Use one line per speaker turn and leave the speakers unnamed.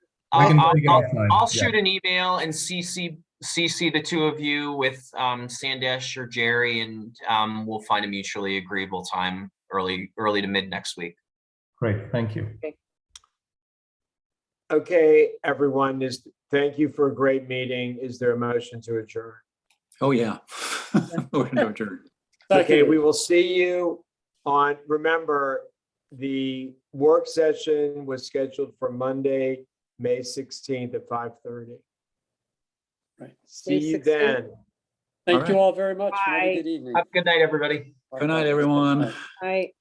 We
I'll,
can
I'll,
take it
I'll-
offline,
I'll
yeah.
shoot an email and CC, CC the two of you with, um, Sandesh or Jerry and, um, we'll find a mutually agreeable time early, early to mid next week.
Great, thank you.
Okay, everyone, is, thank you for a great meeting. Is there a motion to adjourn?
Oh, yeah. We're gonna adjourn.
Okay, we will see you on, remember, the work session was scheduled for Monday, May sixteenth at five thirty.
Right.
See you
16th.
then.
Thank
Alright.
you all very much. Have
Bye.
a good evening.
Have a good night, everybody.
Good night, everyone.
Right.